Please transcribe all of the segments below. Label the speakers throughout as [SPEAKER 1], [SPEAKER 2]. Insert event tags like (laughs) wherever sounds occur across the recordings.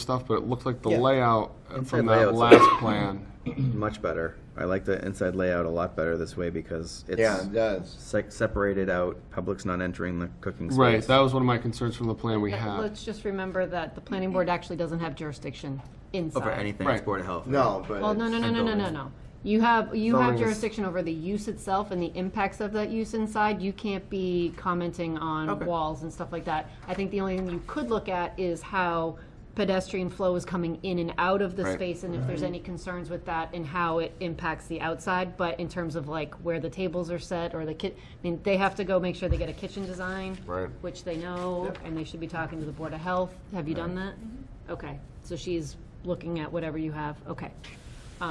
[SPEAKER 1] stuff, but it looked like the
[SPEAKER 2] Yeah.
[SPEAKER 1] layout from that
[SPEAKER 3] layout's-
[SPEAKER 1] last
[SPEAKER 3] (laughs)
[SPEAKER 1] plan.
[SPEAKER 3] much better. I like the inside layout a lot better this way because it's
[SPEAKER 2] Yeah, it does.
[SPEAKER 3] se- separated out. Public's not entering the cooking space.
[SPEAKER 1] Right, that was one of my concerns from the plan we had.
[SPEAKER 4] Let's just remember that the planning board actually doesn't have jurisdiction inside.
[SPEAKER 3] over anything.
[SPEAKER 1] Right.
[SPEAKER 3] It's Board of Health.
[SPEAKER 2] No, but.
[SPEAKER 4] Well, no, no,
[SPEAKER 2] it's-
[SPEAKER 4] no, no, no, no,
[SPEAKER 3] buildings.
[SPEAKER 4] no. You have, you
[SPEAKER 1] Zoning
[SPEAKER 4] have
[SPEAKER 1] is-
[SPEAKER 4] jurisdiction over the use itself and the impacts of that use inside. You can't be commenting on
[SPEAKER 3] Okay.
[SPEAKER 4] walls and stuff like that. I think the only thing you could look at is how pedestrian flow is coming in and out of the
[SPEAKER 1] Right.
[SPEAKER 4] space and if there's any concerns with that and how it impacts the outside. But in terms of like where the tables are set or the ki, I mean, they have to go make sure they get a kitchen design.
[SPEAKER 1] Right.
[SPEAKER 4] Which they know, and they should be talking to the Board of Health. Have you done that? Okay, so she's looking at whatever you have, okay.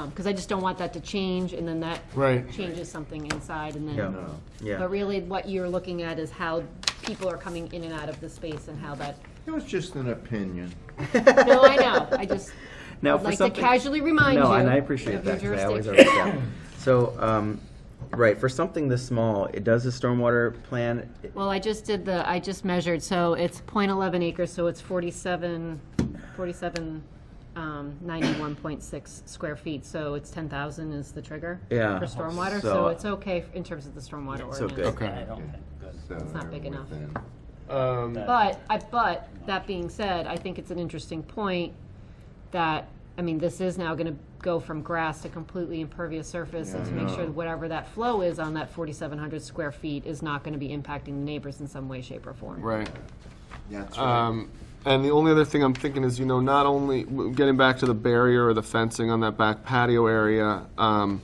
[SPEAKER 4] Because I just don't want that to change, and then that
[SPEAKER 1] Right.
[SPEAKER 4] changes something inside, and
[SPEAKER 3] Yeah.
[SPEAKER 4] then,
[SPEAKER 3] No. Yeah.
[SPEAKER 4] but really, what you're looking at is how people are coming in and out of the space and
[SPEAKER 3] (laughs)
[SPEAKER 4] how that,
[SPEAKER 2] It was just an opinion.
[SPEAKER 4] no, I know, I just,
[SPEAKER 3] Now,
[SPEAKER 4] I'd
[SPEAKER 3] for
[SPEAKER 4] like to
[SPEAKER 3] something-
[SPEAKER 4] casually remind you.
[SPEAKER 3] No, and I appreciate
[SPEAKER 4] of your
[SPEAKER 3] that, 'cause I always
[SPEAKER 4] jurisdiction.
[SPEAKER 3] overstep. So, um, right, for something this small, it does a stormwater plan, it-
[SPEAKER 4] Well, I just did the, I just measured, so it's .11 acres, so it's 47, 47, um, 91.6 square feet, so it's 10,000 is the trigger.
[SPEAKER 3] Yeah.
[SPEAKER 4] For
[SPEAKER 3] So-
[SPEAKER 4] stormwater, so it's okay in terms of the stormwater ordinance.
[SPEAKER 3] so good.
[SPEAKER 1] Okay.
[SPEAKER 2] It's
[SPEAKER 4] not big enough.
[SPEAKER 1] Um,
[SPEAKER 4] But, I, but, that being said, I think it's an interesting point that, I mean, this is now gonna go from grass to completely impervious surface and to make sure that whatever that flow is on that forty-seven hundred square feet is not gonna be impacting the neighbors in some way, shape, or form.
[SPEAKER 1] Right.
[SPEAKER 2] That's right.
[SPEAKER 1] Um, and the only other thing I'm thinking is, you know, not only w- getting back to the barrier or the fencing on that back patio area, um,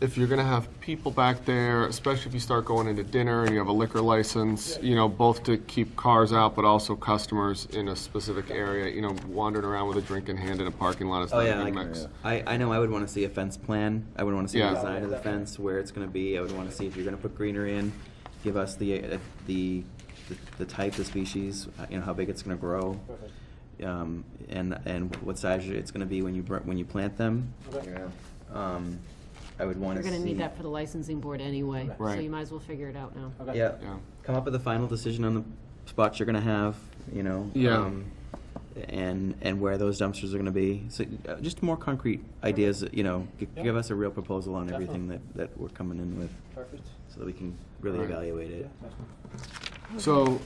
[SPEAKER 1] if you're gonna have people back there, especially if you start going into dinner and you have a liquor license, you know, both to keep cars out, but also customers in a specific area, you know, wandering around with a drink in hand in a parking lot is
[SPEAKER 3] Oh
[SPEAKER 1] not
[SPEAKER 3] yeah,
[SPEAKER 1] a
[SPEAKER 3] like,
[SPEAKER 1] good mix.
[SPEAKER 3] I, I know I would want to see a fence plan. I would want to see
[SPEAKER 1] Yeah.
[SPEAKER 3] the design of the fence, where it's going to be. I would want to see if you're going to put greenery in. Give us the uh, the the, the type, the species, uh, you know how big it's going to grow, um, and and what size it's going to be when you br- when you plant them.
[SPEAKER 2] Yeah.
[SPEAKER 3] Um, I would want
[SPEAKER 4] You're
[SPEAKER 3] to see.
[SPEAKER 4] gonna need that for the licensing board anyway, so
[SPEAKER 1] Right.
[SPEAKER 4] you might as well figure it out now.
[SPEAKER 3] yeah.
[SPEAKER 1] Yeah.
[SPEAKER 3] Come up with a final decision on the spots you're going to have. You know. um,
[SPEAKER 1] Yeah.
[SPEAKER 3] and and where those dumpsters are going to be. So uh, just more concrete ideas, you know, g- give us a real proposal on everything that, that we're coming in with,
[SPEAKER 5] Perfect.
[SPEAKER 3] so that we can really
[SPEAKER 1] Right.
[SPEAKER 3] evaluate it.
[SPEAKER 1] So,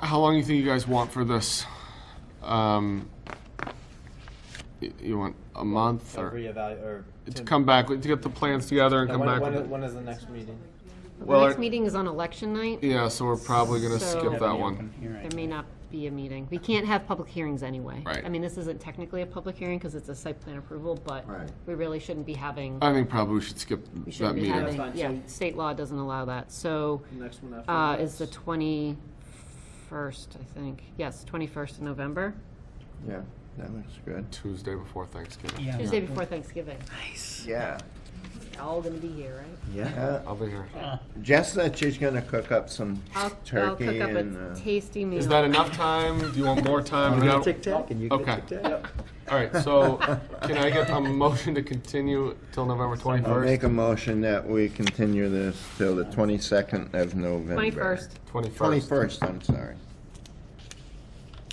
[SPEAKER 1] how long do you think you guys want for this? Um, y- you want a month
[SPEAKER 5] So
[SPEAKER 1] or
[SPEAKER 5] reevaluate, or.
[SPEAKER 1] to come back to get the plans together and
[SPEAKER 5] Now,
[SPEAKER 1] come
[SPEAKER 5] when-
[SPEAKER 1] back?
[SPEAKER 5] when
[SPEAKER 1] with
[SPEAKER 5] i-
[SPEAKER 1] it?
[SPEAKER 5] When is the next meeting?
[SPEAKER 4] The
[SPEAKER 1] Well,
[SPEAKER 4] next
[SPEAKER 1] I-
[SPEAKER 4] meeting is on election night,
[SPEAKER 1] Yeah, so we're probably gonna
[SPEAKER 4] So-
[SPEAKER 1] skip that one.
[SPEAKER 4] there may not be a meeting. We can't have public hearings anyway.
[SPEAKER 1] Right.
[SPEAKER 4] I mean, this isn't technically a public hearing, because it's a site plan approval, but
[SPEAKER 2] Right.
[SPEAKER 4] we really shouldn't be having,
[SPEAKER 1] I think probably we should skip
[SPEAKER 4] we
[SPEAKER 1] that
[SPEAKER 4] shouldn't be
[SPEAKER 1] meeting.
[SPEAKER 4] having, yeah, state law doesn't allow that, so,
[SPEAKER 5] Next one after.
[SPEAKER 4] uh,
[SPEAKER 5] that?
[SPEAKER 4] is the twenty-first, I think, yes, twenty-first of November,
[SPEAKER 2] Yeah, that looks good.
[SPEAKER 1] Tuesday before Thanksgiving.
[SPEAKER 4] Tuesday before Thanksgiving.
[SPEAKER 2] Yeah.
[SPEAKER 4] All gonna be here, right?
[SPEAKER 3] Yeah.
[SPEAKER 2] Uh,
[SPEAKER 1] I'll be here.
[SPEAKER 2] Jess said she's gonna cook up some
[SPEAKER 4] I'll, I'll
[SPEAKER 2] turkey
[SPEAKER 4] cook up
[SPEAKER 2] and.
[SPEAKER 4] a
[SPEAKER 2] uh,
[SPEAKER 4] tasty meal.
[SPEAKER 1] Is that enough time? Do you want
[SPEAKER 5] (laughs)
[SPEAKER 1] more time? No.
[SPEAKER 3] Tic tac, and you
[SPEAKER 1] Okay.
[SPEAKER 3] get tic tac.
[SPEAKER 1] All right, so can I get a motion to continue till November
[SPEAKER 2] I'll make
[SPEAKER 1] 21st?
[SPEAKER 2] a motion that we continue this till the twenty-second of November.
[SPEAKER 4] Twenty-first.
[SPEAKER 1] 21st.
[SPEAKER 2] Twenty-first, I'm sorry.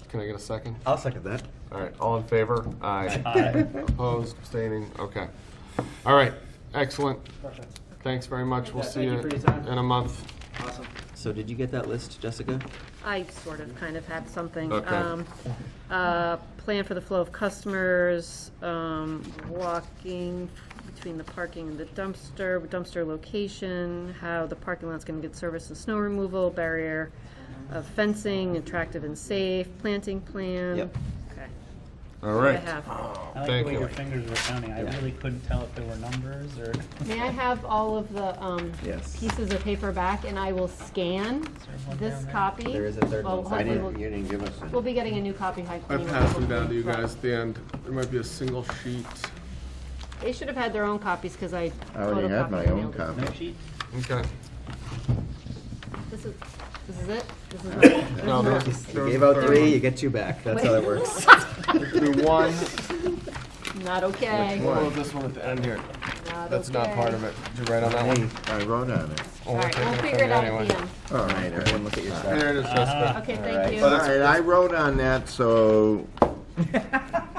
[SPEAKER 1] Can I get a second?
[SPEAKER 3] I'll second that.
[SPEAKER 1] All right, all in favor? Aye. Opposed, abstaining, okay. All right, excellent.
[SPEAKER 5] Perfect.
[SPEAKER 1] Thanks very much. We'll
[SPEAKER 5] Yeah,
[SPEAKER 1] see
[SPEAKER 5] thank
[SPEAKER 1] you
[SPEAKER 5] you for your time.
[SPEAKER 1] in a month.
[SPEAKER 5] Awesome.
[SPEAKER 3] So did you get that list, Jessica?
[SPEAKER 4] I sort of kind of had something.
[SPEAKER 1] Okay.
[SPEAKER 4] Um, uh, Plan for the flow of customers, um, walking between the parking and the dumpster, dumpster location, how the parking lot's gonna get service and snow removal, barrier of fencing, attractive and safe, planting plan.
[SPEAKER 3] Yep.
[SPEAKER 4] Okay.
[SPEAKER 1] All
[SPEAKER 4] I
[SPEAKER 1] right.
[SPEAKER 4] have.
[SPEAKER 6] I
[SPEAKER 1] Thank
[SPEAKER 6] like the way
[SPEAKER 1] you.
[SPEAKER 6] your fingers were counting. I
[SPEAKER 3] Yeah.
[SPEAKER 6] really couldn't tell if there were numbers or.
[SPEAKER 4] May I have all of the um,
[SPEAKER 3] Yes.
[SPEAKER 4] pieces of paper back, and I will scan
[SPEAKER 6] one
[SPEAKER 4] this
[SPEAKER 6] down there?
[SPEAKER 4] copy?
[SPEAKER 3] There is a third
[SPEAKER 4] Well,
[SPEAKER 3] one somewhere.
[SPEAKER 2] I
[SPEAKER 4] hopefully
[SPEAKER 2] didn't,
[SPEAKER 4] we'll-
[SPEAKER 2] you didn't give us
[SPEAKER 4] We'll
[SPEAKER 2] a.
[SPEAKER 4] be getting a new copy, high
[SPEAKER 1] I
[SPEAKER 4] clean.
[SPEAKER 1] passed them down to you
[SPEAKER 4] Right.
[SPEAKER 1] guys at the end. There might be a single sheet.
[SPEAKER 4] They should have had their own copies because I
[SPEAKER 2] I already had
[SPEAKER 4] photocopied
[SPEAKER 2] my
[SPEAKER 4] and
[SPEAKER 2] own
[SPEAKER 4] mailed it.
[SPEAKER 2] copy.
[SPEAKER 6] sheet?
[SPEAKER 1] Okay.
[SPEAKER 4] This is, this is it?
[SPEAKER 2] (laughs)
[SPEAKER 4] This is my.
[SPEAKER 1] No, there was- there
[SPEAKER 3] You
[SPEAKER 1] was
[SPEAKER 3] gave
[SPEAKER 1] a
[SPEAKER 3] out
[SPEAKER 1] third
[SPEAKER 3] three,
[SPEAKER 1] one.
[SPEAKER 3] you get two back. That's how that
[SPEAKER 4] (laughs)
[SPEAKER 3] works.
[SPEAKER 1] Do one,
[SPEAKER 4] Not okay.
[SPEAKER 1] (laughs) Well, this one at the end here.
[SPEAKER 4] Not
[SPEAKER 1] That's not
[SPEAKER 4] okay.
[SPEAKER 1] part of it. Did you write on that one?
[SPEAKER 2] I wrote on it.
[SPEAKER 4] All right, we'll figure it out at the end.
[SPEAKER 2] All right, all right.
[SPEAKER 3] Everyone look at your
[SPEAKER 4] Uh,
[SPEAKER 1] There it is, Jessica.
[SPEAKER 4] Okay, thank you.
[SPEAKER 2] All right, I wrote on that, so